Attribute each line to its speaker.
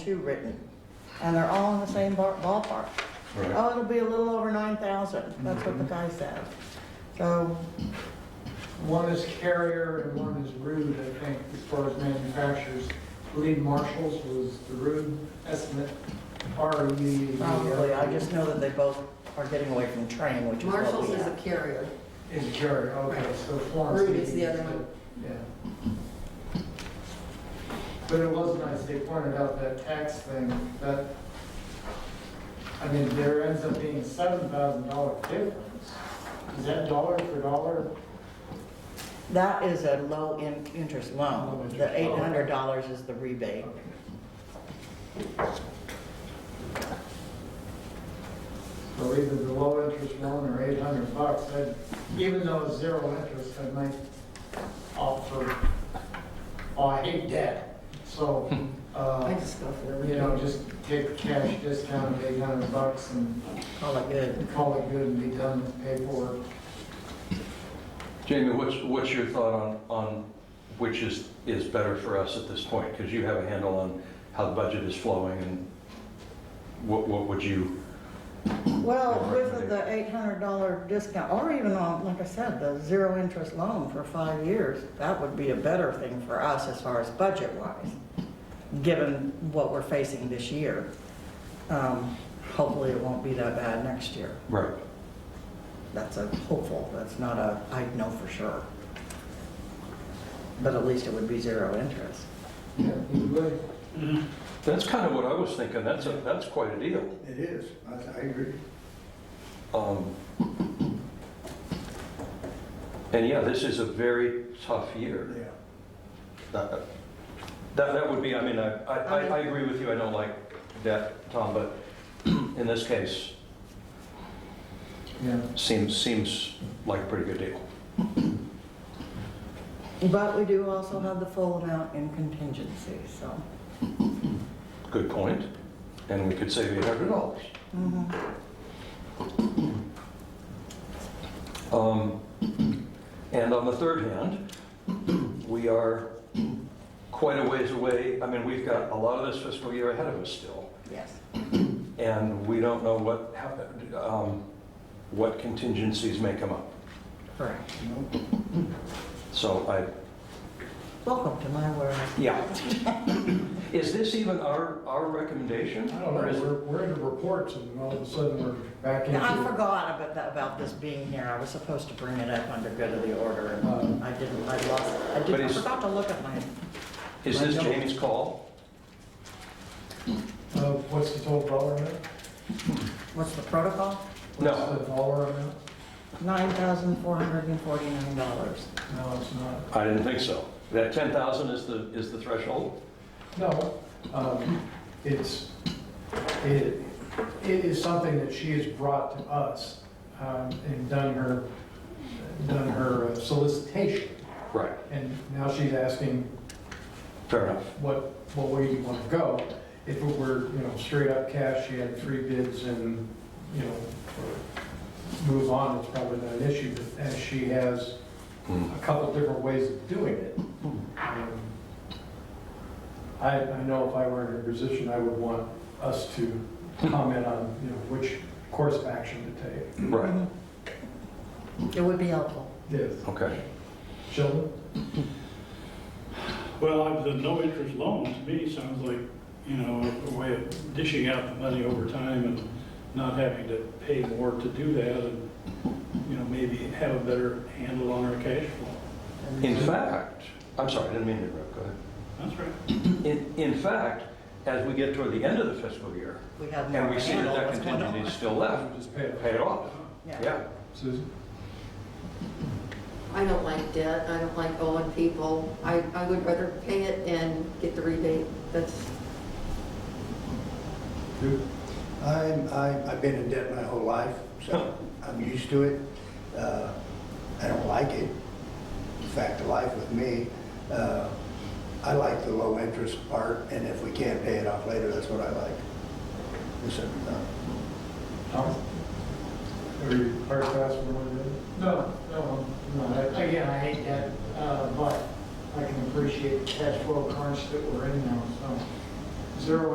Speaker 1: two written, and they're all in the same bar- ballpark.
Speaker 2: Right.
Speaker 1: Oh, it'll be a little over nine thousand, that's what the guy said. So,
Speaker 3: One is Carrier and one is Rude, I think, as far as manufacturers. Lee Marshall's was the Rude estimate, R U D. E.
Speaker 1: probably, I just know that they both are getting away from train, which is what
Speaker 4: Marshall's
Speaker 1: we
Speaker 4: is a
Speaker 1: have.
Speaker 4: carrier.
Speaker 3: Is Carrier, okay, so Florence.
Speaker 4: Rude is the other one.
Speaker 3: Yeah. But it was nice, they pointed out that tax thing, that, I mean, there ends up being seven thousand dollar difference. Is that dollar for dollar?
Speaker 1: That is a low in, interest
Speaker 3: Low
Speaker 1: loan,
Speaker 3: interest
Speaker 1: the eight
Speaker 3: loan.
Speaker 1: hundred dollars is the rebate.
Speaker 3: So either the low interest loan or eight hundred bucks, I'd, even though it's zero interest, I might opt for, oh, I hate debt. So,
Speaker 4: I
Speaker 3: uh,
Speaker 4: just go for the
Speaker 3: you know,
Speaker 4: rebate.
Speaker 3: just take the cash discount of eight hundred bucks and
Speaker 1: Call it good.
Speaker 3: call it good and be done with paperwork.
Speaker 2: Jamie, what's, what's your thought on, on which is, is better for us at this point? Because you have a handle on how the budget is flowing and what, what would you,
Speaker 1: Well, with the eight hundred dollar discount, or even on, like I said, the zero interest loan for five years, that would be a better thing for us as far as budget wise, given what we're facing this year. Um, Hopefully it won't be that bad next year.
Speaker 2: right?
Speaker 1: That's a hopeful, that's not a, I know for sure. But at least it would be zero interest.
Speaker 3: Yeah, you would.
Speaker 2: That's kind of what I was thinking. That's, a that's quite a deal.
Speaker 5: It is, I, I agree.
Speaker 2: Um, And yeah, this is a very tough year.
Speaker 5: Yeah.
Speaker 2: That, that that would be, I mean, I, I, I- I agree with you. I don't like that, Tom, but in this case,
Speaker 3: Yeah.
Speaker 2: seems, seems like a pretty good deal.
Speaker 1: But we do also have the full amount in contingency, so.
Speaker 2: Good point. And we could save eight hundred dollars.
Speaker 1: mhm.
Speaker 2: Um, And on the third hand, we are quite a ways away. I mean, we've got a lot of this fiscal year ahead of us still,
Speaker 1: Yes.
Speaker 2: and we don't know what happened, um, what contingencies may come up.
Speaker 1: Correct.
Speaker 5: No,
Speaker 2: So I,
Speaker 1: Welcome to my world.
Speaker 2: yeah. Is this even our, our recommendation?
Speaker 6: I don't know,
Speaker 2: Or is it-
Speaker 6: we're, we're into reports and all of a sudden we're back into.
Speaker 1: Now, I forgot about that, about this being here. I was supposed to bring it up under good of the order,
Speaker 6: uh,
Speaker 1: and I didn't, I lost, I
Speaker 2: But
Speaker 1: didn't, I
Speaker 2: it's-
Speaker 1: forgot to look at mine.
Speaker 2: Is this Jamie's call?
Speaker 6: Uh, what's the total dollar amount?
Speaker 1: What's the protocol?
Speaker 2: No,
Speaker 6: What's the dollar amount?
Speaker 1: Nine thousand four hundred and forty-nine dollars.
Speaker 6: No, it's not.
Speaker 2: I didn't think so. That ten thousand is the, is the threshold?
Speaker 6: No, um, it's, it, it is something that she has brought to us, um, and done her, done her uh, solicitation.
Speaker 2: Right,
Speaker 6: And now she's asking
Speaker 2: fair enough.
Speaker 6: what, what way do you want to go? If it were, you know, straight up cash, you had three bids and, you know, move on, it's probably not an issue, but as she has
Speaker 2: Mm.
Speaker 6: a couple different ways of doing it. um, I, I know if I were in her position, I would want us to comment on, you know, which course of action to take.
Speaker 2: Right,
Speaker 1: It would be helpful.
Speaker 6: Yes.
Speaker 2: okay.
Speaker 6: Sheldon?
Speaker 7: Well, I- the no-interest loan to me sounds like, you know, a way of dishing out the money over time and not having to pay more to do that and, you know, maybe have a better handle on our cash flow.
Speaker 2: In fact, I'm sorry, I didn't mean to interrupt, go ahead.
Speaker 7: That's right.
Speaker 2: In, in fact, as we get toward the end of the fiscal year,
Speaker 1: We have no
Speaker 2: and we see that
Speaker 1: handle
Speaker 2: that
Speaker 1: what's going
Speaker 2: contingency is
Speaker 1: on.
Speaker 2: still left,
Speaker 6: Just pay it.
Speaker 2: pay it off. Yeah,
Speaker 6: Susan?
Speaker 4: I don't like debt, I don't like owing people. I, I would rather pay it and get the rebate. That's,
Speaker 5: I'm, I, I've been in debt my whole life, so I'm used to it. Uh, I don't like it. It's a fact of life with me. Uh, I like the low interest part, and if we can't pay it off later, that's what I like. Listen, uh,
Speaker 6: Tom? Are you hard pass from one of them?
Speaker 3: No, no, no, I- again, I hate that, uh, but I can appreciate the cash flow crunch that we're in now, so zero